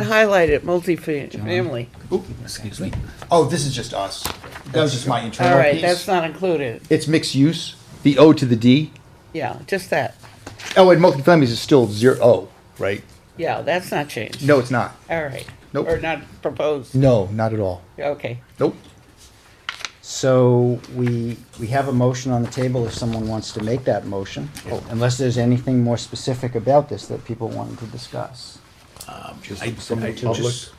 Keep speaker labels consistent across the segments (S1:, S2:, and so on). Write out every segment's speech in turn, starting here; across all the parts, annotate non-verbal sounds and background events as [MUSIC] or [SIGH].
S1: That highlighted multifamily.
S2: Oop,
S3: Excuse me.
S2: Oh, this is just us. That was just my
S1: All
S2: internal
S1: right, that's
S2: piece.
S1: not included.
S2: It's mixed use, the O to the D.
S1: Yeah, just that.
S2: Oh, and multifamilies is still zero O, right?
S1: Yeah, that's not changed.
S2: No, it's not.
S1: All right.
S2: Nope.
S1: Or not proposed.
S2: No, not at all.
S1: Okay.
S2: Nope.
S3: So we, we have a motion on the table if someone wants to make that motion, unless there's anything more specific about this that people wanted to discuss.
S4: I,
S3: Just
S4: I
S3: public.
S4: just,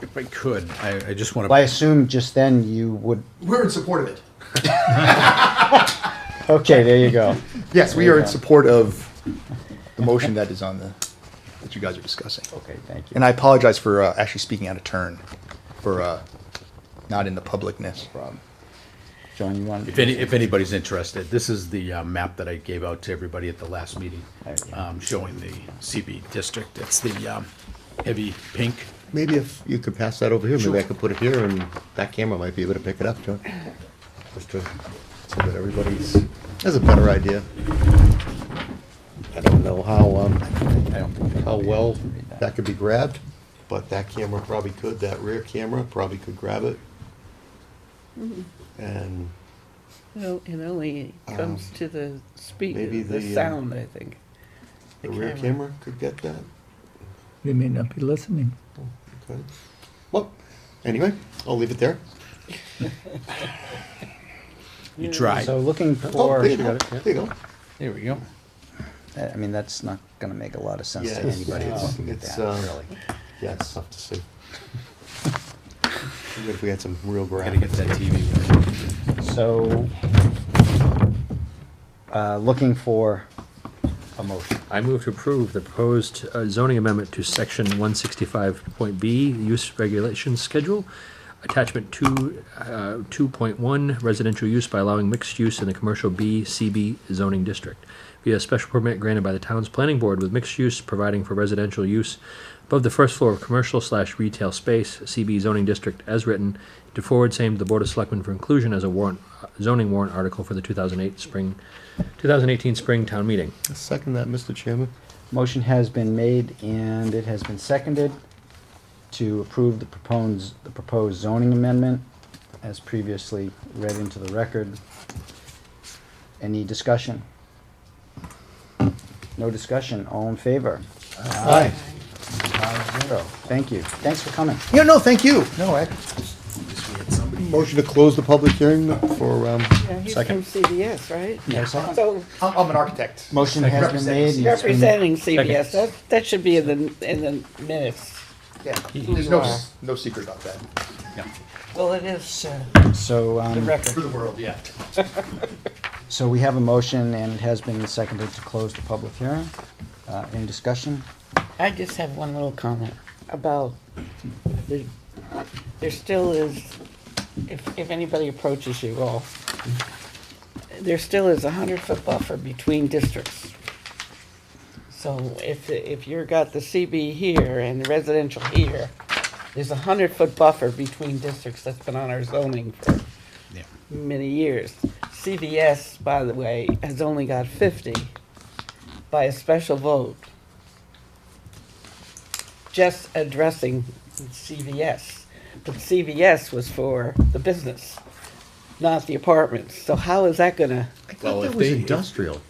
S4: if I could, I, I just want
S3: Well, I
S4: to,
S3: assume just then you would,
S2: We're in support of it.
S3: okay, there you go.
S2: Yes, we are in support of the motion that is on the, that you guys are discussing.
S3: [LAUGHS] Okay, thank you.
S2: And I apologize for uh, actually speaking out of turn, for uh, not in the publicness.
S3: Rob. John, you wanted to?
S4: if any, if anybody's interested, this is the uh, map that I gave out to everybody at the last meeting, um, showing the CB district. It's the, um, heavy pink.
S5: Maybe if you could pass that over here, maybe I could put it here, and that camera might be able to pick it up, John. Just to, so that everybody's, has a better idea. I don't know how, um, how well that could be grabbed, but that camera probably could, that rear camera probably could grab it. And
S1: Well, it only comes to the
S5: Um,
S1: speed,
S5: maybe
S1: the
S5: the, uh,
S1: sound, I think.
S5: the rear
S1: camera.
S5: camera could get that,
S6: They may not be listening.
S5: could. Well, anyway, I'll leave it there.
S4: You tried.
S3: So looking
S5: Oh,
S3: for,
S5: there you go, there you go.
S4: There we go.
S3: I mean, that's not gonna make a lot of sense
S5: Yeah,
S3: to
S5: it's-
S3: anybody
S5: it's-
S3: looking at
S5: it's,
S3: that,
S5: uh,
S3: really.
S5: Yeah, it's tough
S4: [LAUGHS]
S5: to see. Even if we had some real
S4: Gotta get that
S5: graphics.
S4: TV.
S3: So, uh, looking for a motion.
S7: I move to approve the proposed uh, zoning amendment to section one sixty-five point B, use regulation schedule, attachment two, uh, two point one, residential use by allowing mixed use in the commercial B, CB zoning district. Via special permit granted by the town's planning board with mixed use providing for residential use above the first floor of commercial slash retail space, CB zoning district as written, to forward same to the board of selectmen for inclusion as a warrant, uh, zoning warrant article for the two thousand eight spring, two thousand eighteen spring town meeting.
S5: Second that, Mr. Chairman.
S3: Motion has been made and it has been seconded to approve the proposed, the proposed zoning amendment as previously read into the record. Any discussion? No discussion, all in favor?
S5: Aye.
S3: Five zero. Thank you, thanks for coming.
S5: Yeah, no, thank you. No, I. Motion to close the public hearing for, um,
S1: Yeah, he's from
S5: second.
S1: CBS, right?
S3: Yes.
S1: So
S2: I'm, I'm an architect.
S3: Motion has been made. and it's been-
S1: representing CBS, that, that should be in the, in the minutes.
S2: Yeah, there's no, s- no secret about that.
S1: Well, it is, uh,
S3: So,
S1: the
S3: um,
S2: For
S1: record.
S2: the world, yeah.
S3: [LAUGHS] so we have a motion and it has been seconded to close the public hearing. Uh, any discussion?
S1: I just have one little comment about, the- there still is, if, if anybody approaches you all, there still is a hundred-foot buffer between districts. So if, if you're got the CB here and the residential here, there's a hundred-foot buffer between districts that's been on our zoning for
S4: Yeah.
S1: many years. CVS, by the way, has only got fifty by a special vote. Just addressing CVS, but CVS was for the business, not the apartments. So how is that gonna,
S4: Well, if
S5: was
S4: they-
S5: industrial.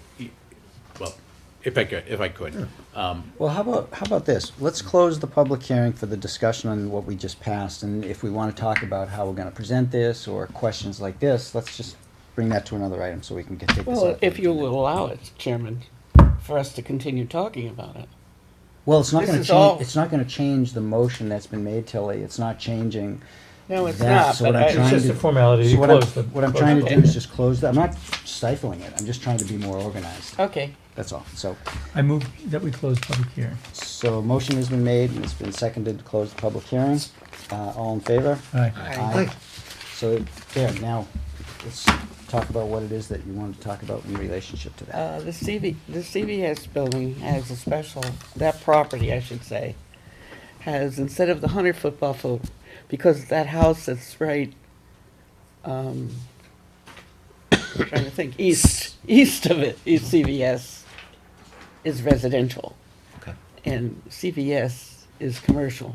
S4: Well, if I could, if I could. Um,
S3: Well, how about, how about this? Let's close the public hearing for the discussion on what we just passed, and if we want to talk about how we're going to present this or questions like this, let's just bring that to another item so we can get- take this
S1: well,
S3: out.
S1: if you will allow it, Chairman, for us to continue talking about it?
S3: Well, it's not
S1: this
S3: going to
S1: is all-
S3: change, it's not going to change the motion that's been made, Tilly. It's not changing.
S1: No, it's
S3: that.
S1: not,
S3: So what
S1: but
S3: I'm
S1: I- It's
S3: trying
S1: just
S3: to-
S7: a formality.
S3: so
S7: You
S3: what I'm-
S7: close the-
S3: What I'm
S7: close
S3: trying
S7: the
S3: to do is just close that. I'm not stifling it. I'm just trying to be more organized.
S1: Okay.
S3: That's all. So,
S6: I move that we close public hearing.
S3: so a motion has been made and it's been seconded to close the public hearing. Uh, all in favor?
S6: Aye.
S3: Aye. So, there, now, let's talk about what it is that you wanted to talk about in relationship to that.
S1: Uh, the CV, the CVS building has a special, that property, I should say, has, instead of the hundred-foot buffer, because that house that's right, um, [COUGHS] trying to think, east, east of it, east CVS, is residential. And CVS is commercial.